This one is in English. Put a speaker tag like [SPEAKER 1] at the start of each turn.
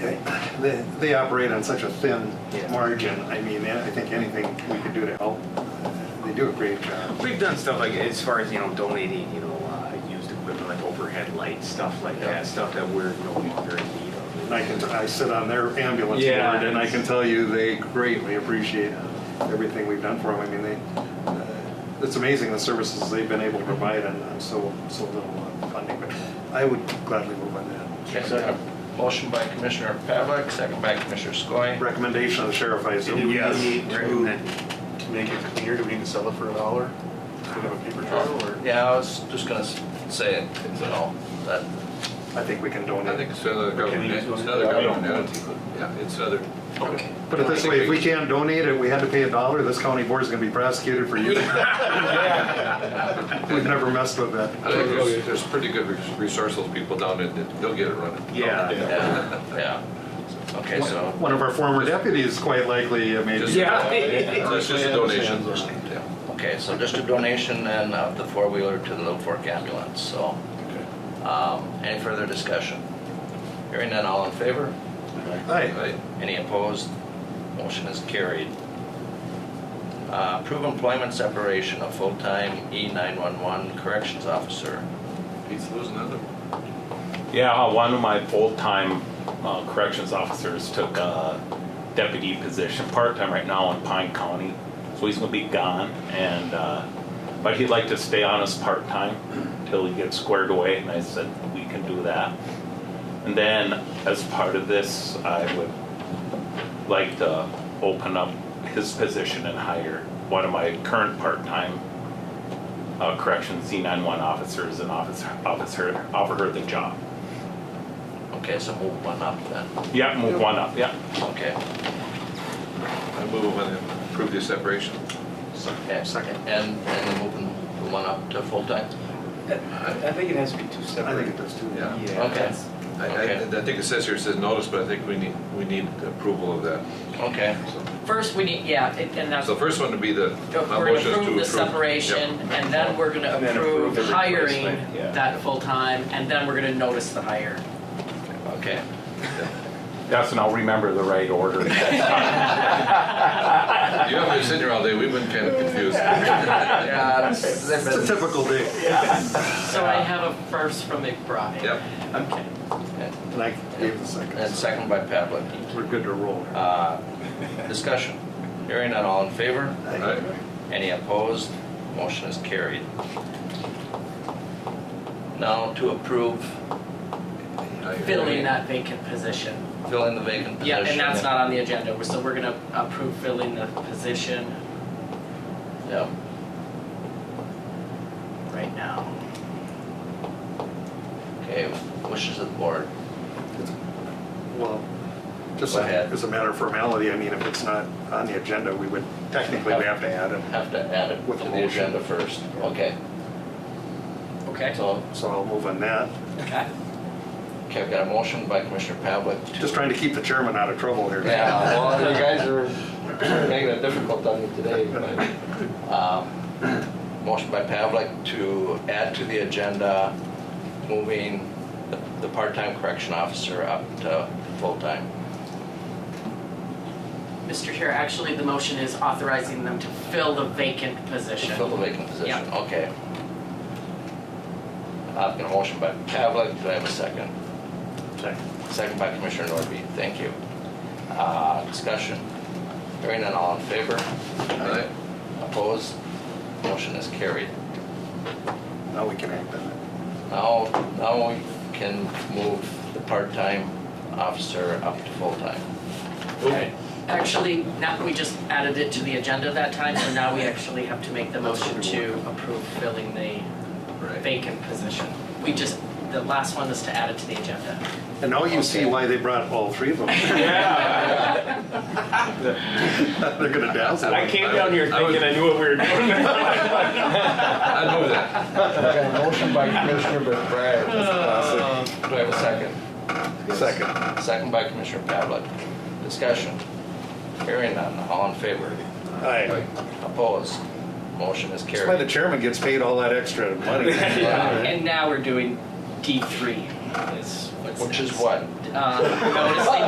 [SPEAKER 1] they, they, they operate on such a thin
[SPEAKER 2] Yeah.
[SPEAKER 1] margin. I mean, I think anything we could do to help, they do a great job.
[SPEAKER 2] We've done stuff like, as far as, you know, donating, you know, uh, used equipment, like overhead lights, stuff like
[SPEAKER 1] Yeah.
[SPEAKER 2] that, stuff that we're no longer in need of.
[SPEAKER 1] And I can, I sit on their ambulance
[SPEAKER 2] Yeah.
[SPEAKER 1] board and I can tell you they greatly appreciate everything we've done for them. I mean, they, uh, it's amazing the services they've been able to provide and uh, so, so little uh, funding. But I would gladly move on that.
[SPEAKER 3] Second. Motion by Commissioner Pavlik, second by Commissioner Skoye.
[SPEAKER 1] Recommendation of the sheriff, I assume.
[SPEAKER 4] Do we
[SPEAKER 2] Yes.
[SPEAKER 4] need to,
[SPEAKER 2] Recommend.
[SPEAKER 4] to make it clear, do we need to sell it for a dollar? Instead of a paper trail or?
[SPEAKER 3] Yeah, I was just gonna s- say it, you know, that,
[SPEAKER 1] I think we can donate.
[SPEAKER 5] I think it's another
[SPEAKER 4] Can
[SPEAKER 5] government,
[SPEAKER 4] you-
[SPEAKER 5] it's another government entity, yeah, it's other.
[SPEAKER 3] Okay.
[SPEAKER 1] Put it this way, if we can't donate it, we had to pay a dollar, this county board's gonna be prosecuted for you. We've never messed with
[SPEAKER 5] I
[SPEAKER 1] that.
[SPEAKER 5] think there's, there's pretty good res- resourceful people down there, that they'll get it running.
[SPEAKER 2] Yeah.
[SPEAKER 3] yeah, yeah. Okay, so.
[SPEAKER 1] One of our former deputies quite likely uh, made.
[SPEAKER 5] Just-
[SPEAKER 2] Yeah.
[SPEAKER 5] It's just a donation, yeah.
[SPEAKER 3] Okay, so just a donation and of the four-wheeler to the Little Fork ambulance, so. Um, Any further discussion? Hearing none, all in favor?
[SPEAKER 1] Hi,
[SPEAKER 5] Right.
[SPEAKER 3] Any opposed? Motion is carried. Uh, Approve employment separation of full-time E E911 corrections officer.
[SPEAKER 5] Pete's losing another one.
[SPEAKER 6] Yeah, uh, one of my full-time uh, corrections officers took a deputy position, part-time right now in Pine County. So he's gonna be gone and, uh, but he'd like to stay on as part-time till he gets squared away and I said, we can do that. And then as part of this, I would like to open up his position and hire one of my current part-time uh, corrections C91 officers and officer, officer, offer her the job.
[SPEAKER 3] Okay, so move one up then.
[SPEAKER 6] Yeah, move one up, yeah.
[SPEAKER 3] Okay.
[SPEAKER 5] I move when they approve the separation.
[SPEAKER 3] And, and and moving the one up to full-time?
[SPEAKER 2] I think it has to be two
[SPEAKER 1] I think it does too.
[SPEAKER 5] Yeah.
[SPEAKER 3] Okay,
[SPEAKER 5] I, I,
[SPEAKER 3] Okay.
[SPEAKER 5] I think it says here, it says notice, but I think we need, we need approval of that.
[SPEAKER 3] okay.
[SPEAKER 5] So-
[SPEAKER 7] First, we need, yeah, it- and that's,
[SPEAKER 5] So
[SPEAKER 7] we're
[SPEAKER 5] the first one to be the, my
[SPEAKER 7] gonna
[SPEAKER 5] motion is to approve.
[SPEAKER 7] approve the
[SPEAKER 5] Yep.
[SPEAKER 7] separation, and then we're gonna
[SPEAKER 1] And then approve
[SPEAKER 7] approve
[SPEAKER 1] the
[SPEAKER 7] hiring
[SPEAKER 1] replacement,
[SPEAKER 6] yeah.
[SPEAKER 7] that full-time, and then we're gonna notice the hire.
[SPEAKER 3] Okay.
[SPEAKER 6] That's, and I'll remember the right order.
[SPEAKER 5] You haven't been sitting here all day, we've been kind of confused.
[SPEAKER 3] Yeah,
[SPEAKER 1] It's a typical day.
[SPEAKER 7] So I have a first from McBride.
[SPEAKER 5] Yep.
[SPEAKER 7] Okay.
[SPEAKER 1] And I gave the
[SPEAKER 3] And
[SPEAKER 1] second.
[SPEAKER 3] second by Pavlik.
[SPEAKER 1] We're good to roll.
[SPEAKER 3] Uh, Discussion. Hearing none, all in favor?
[SPEAKER 5] All right.
[SPEAKER 3] Any opposed? Motion is carried. Now to approve
[SPEAKER 7] Filling that vacant position.
[SPEAKER 3] filling the vacant position.
[SPEAKER 7] Yeah, and that's not on the agenda, so we're gonna approve filling the position
[SPEAKER 3] Yep.
[SPEAKER 7] right now.
[SPEAKER 3] Okay, wishes of the board.
[SPEAKER 1] Well, just
[SPEAKER 3] Go ahead.
[SPEAKER 1] as a matter of formality, I mean, if it's not on the agenda, we would technically we have to add it.
[SPEAKER 3] Have to add it
[SPEAKER 1] With
[SPEAKER 3] to
[SPEAKER 1] the
[SPEAKER 3] the
[SPEAKER 1] motion.
[SPEAKER 3] agenda first. Okay,
[SPEAKER 7] Okay?
[SPEAKER 3] so,
[SPEAKER 1] So I'll move on that.
[SPEAKER 7] Okay.
[SPEAKER 3] okay, I've got a motion by Commissioner Pavlik to
[SPEAKER 1] Just trying to keep the chairman out of trouble here.
[SPEAKER 3] Yeah, well, you guys are making it difficult on me today, but, um, motion by Pavlik to add to the agenda, moving the, the part-time correction officer up to full-time.
[SPEAKER 7] Mr. Chair, actually, the motion is authorizing them to fill the vacant position.
[SPEAKER 3] Fill the vacant position, okay. I've got a motion by Pavlik, do I have a second? Second. Second by Commissioner Norby, thank you. Uh, discussion, hearing none, all in favor?
[SPEAKER 5] All right.
[SPEAKER 3] Opposed? Motion is carried.
[SPEAKER 1] Now we can act on it.
[SPEAKER 3] Now, now we can move the part-time officer up to full-time.
[SPEAKER 5] Okay.
[SPEAKER 7] Actually, now, we just added it to the agenda that time, so now we actually have to make the motion to approve filling the
[SPEAKER 5] Right.
[SPEAKER 7] vacant position. We just, the last one is to add it to the agenda.
[SPEAKER 1] And now you see
[SPEAKER 3] Okay.
[SPEAKER 1] why they brought all three of them. They're gonna dazzle.
[SPEAKER 6] I came down here thinking I knew what we were doing.
[SPEAKER 5] I'd move that.
[SPEAKER 3] I got a motion by Commissioner McBride.
[SPEAKER 1] Classic.
[SPEAKER 3] Do I have a second?
[SPEAKER 1] Second.
[SPEAKER 3] Second by Commissioner Pavlik. Discussion. Hearing none, all in favor?
[SPEAKER 1] Aye.
[SPEAKER 3] Opposed? Motion is
[SPEAKER 1] That's why
[SPEAKER 3] carried.
[SPEAKER 1] the chairman gets paid all that extra money.
[SPEAKER 7] And now we're doing D three is what's.
[SPEAKER 3] Which is
[SPEAKER 7] next.
[SPEAKER 3] what?
[SPEAKER 7] Uh, noticing